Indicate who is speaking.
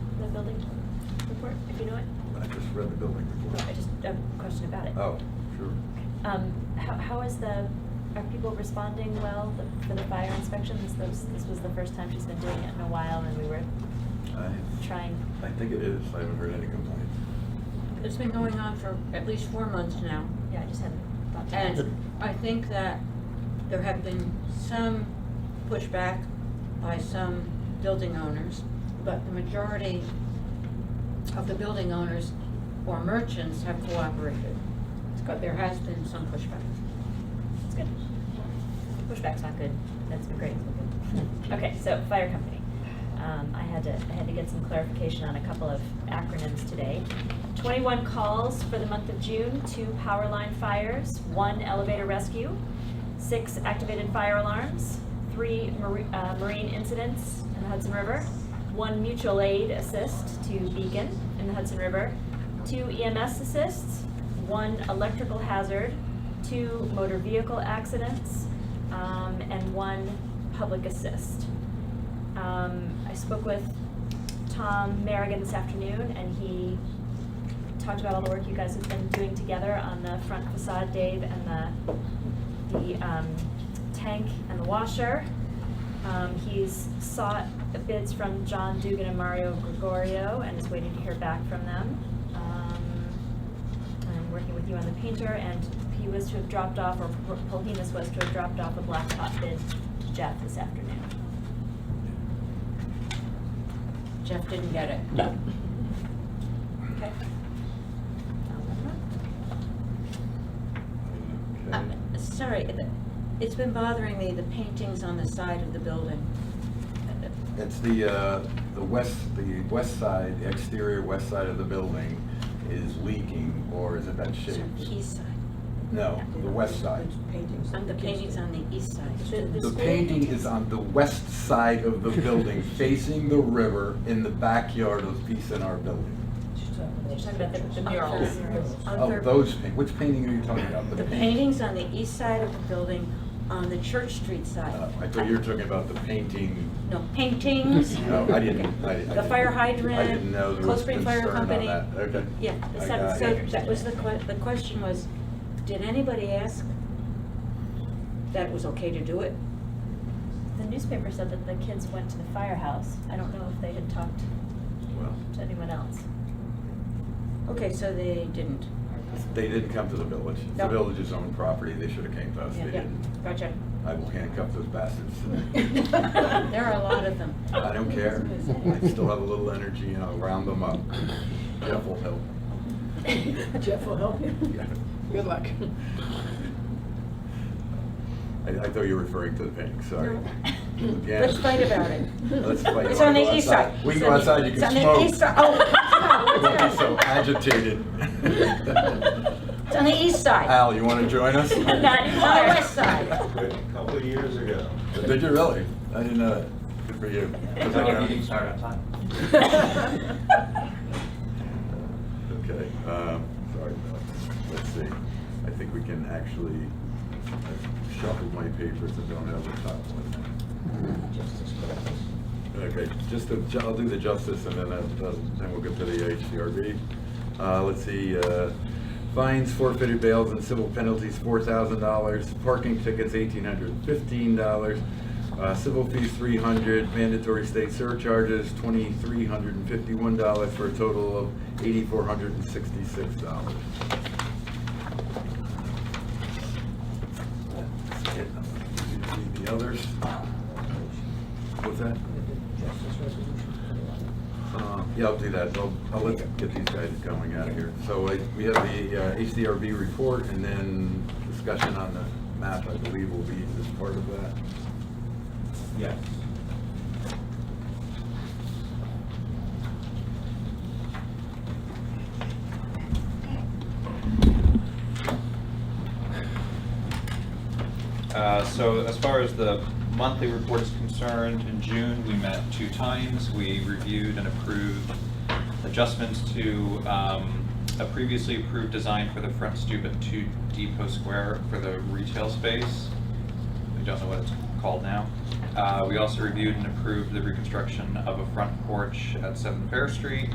Speaker 1: report, if you know it?
Speaker 2: I just read the building
Speaker 1: No,
Speaker 2: report.
Speaker 1: I just have a question about it.
Speaker 2: Oh, sure.
Speaker 1: Um, how, how is the, are people responding well the- for the fire inspection? This, was- this was the first time she's been doing it in a while and we were
Speaker 2: I,
Speaker 1: trying.
Speaker 2: I think it is. I haven't heard any complaints.
Speaker 3: It's been going on for at least four months now,
Speaker 1: Yeah, I just hadn't thought to ask.
Speaker 3: and I think that there have been some pushback by some building owners, but the majority of the building owners or merchants have cooperated. But there has been some pushback.
Speaker 1: It's good. Pushback's not good. That's been great. Okay, so fire company. Um, I had to, I had to get some clarification on a couple of acronyms today. Twenty-one calls for the month of June, two power line fires, one elevator rescue, six activated fire alarms, three mari- uh, marine incidents in the Hudson River, one mutual aid assist to Beacon in the Hudson River, two EMS assists, one electrical hazard, two motor vehicle accidents, um, and one public assist. Um, I spoke with Tom Merrigan this afternoon, and he talked about all the work you guys have been doing together on the front facade, Dave, and the, the um, tank and the washer. Um, He's sought bids from John Dugan and Mario Gregorio, and is waiting to hear back from them. Um, I'm working with you on the painter, and he was to have dropped off, or Polhinus was to have dropped off a blacktop bid to Jeff this afternoon.
Speaker 3: Jeff didn't get it.
Speaker 4: No.
Speaker 1: Okay. Um,
Speaker 3: Uh,
Speaker 2: Okay.
Speaker 3: Sorry, the- it's been bothering me, the paintings on the side of the building.
Speaker 2: It's the, uh, the west, the west side, exterior west side of the building is leaking, or is it that shape?
Speaker 3: East side.
Speaker 2: No, the west side.
Speaker 5: Paintings.
Speaker 3: Um, The paintings on the east side.
Speaker 1: The-
Speaker 2: The painting is on the west side of the building, facing the river in the backyard of PSNR building.
Speaker 1: You're talking about the- the murals.
Speaker 3: On
Speaker 2: Oh,
Speaker 3: Third-
Speaker 2: those, paint- which painting are you talking about?
Speaker 3: The paintings on the east side of the building, on the Church Street
Speaker 2: Uh,
Speaker 3: side.
Speaker 2: I thought you were talking about the painting.
Speaker 3: No, paintings.
Speaker 2: No, I didn't, I I didn't.
Speaker 3: The fire
Speaker 2: I didn't
Speaker 3: hydrant,
Speaker 2: know there
Speaker 3: Cold
Speaker 2: was
Speaker 3: Spring Fire
Speaker 2: concern on
Speaker 3: Company.
Speaker 2: that. Okay.
Speaker 3: Yeah,
Speaker 2: I
Speaker 1: the seven-
Speaker 2: got it.
Speaker 3: so that was the que, the question was, did anybody ask that it was okay to do it?
Speaker 1: The newspaper said that the kids went to the firehouse. I don't know if they had talked
Speaker 2: Well,
Speaker 1: to anyone else.
Speaker 3: Okay, so they didn't.
Speaker 2: They didn't come to the village. It's The
Speaker 3: No.
Speaker 2: village's own property. They should have came to us. They
Speaker 3: Yeah, yeah,
Speaker 2: didn't.
Speaker 3: gotcha.
Speaker 2: I will handcuff those bastards today.
Speaker 3: There are a lot of them.
Speaker 2: I don't care. I still have a little energy and I'll round them up. Jeff will help.
Speaker 5: Jeff will help you. Good luck.
Speaker 2: I, I thought you were referring to the painting, sorry.
Speaker 3: No.
Speaker 2: Yeah.
Speaker 3: Let's fight about it.
Speaker 2: Let's fight.
Speaker 3: It's
Speaker 2: You
Speaker 3: on
Speaker 2: wanna
Speaker 3: the
Speaker 2: go
Speaker 3: east
Speaker 2: outside?
Speaker 3: side.
Speaker 2: We can
Speaker 3: It's
Speaker 2: go
Speaker 3: on the-
Speaker 2: outside, you
Speaker 3: it's
Speaker 2: can
Speaker 3: on
Speaker 2: smoke.
Speaker 3: the east side. Oh,
Speaker 2: Don't be
Speaker 3: it's
Speaker 2: so agitated.
Speaker 3: It's on the east side.
Speaker 2: Al, you want to join us?
Speaker 1: Not
Speaker 3: On the west side.
Speaker 6: A couple of years ago.
Speaker 2: Did you really? I didn't know that. Good for you.
Speaker 6: That's how you can start outside.
Speaker 2: Okay, um, sorry, Bill. Let's see. I think we can actually, I shuffled my papers and don't have the top one. Okay, just, the ju- I'll do the justice and then, I'll- I'll- then we'll get to the HCRB. Uh, let's see, uh, fines, forfeited bails and civil penalties, four thousand dollars, parking tickets, eighteen hundred fifteen dollars, uh, civil fees, three hundred, mandatory state surcharges, twenty-three hundred and fifty-one dollars for a total of eighty-four hundred and sixty-six dollars. uh, The others? What's that? Uh, Yeah, I'll do that. I'll, I'll let, get these guys going out of here. So I- we have the uh, HDRB report and then discussion on the map, I believe, will be as part of that.
Speaker 6: Yes.
Speaker 7: Uh, So as far as the monthly report is concerned, in June, we met two times. We reviewed and approved adjustments to um, a previously approved design for the front stoop at 2 Depot Square for the retail space. I don't know what it's called now. Uh, We also reviewed and approved the reconstruction of a front porch at 7 Fair Street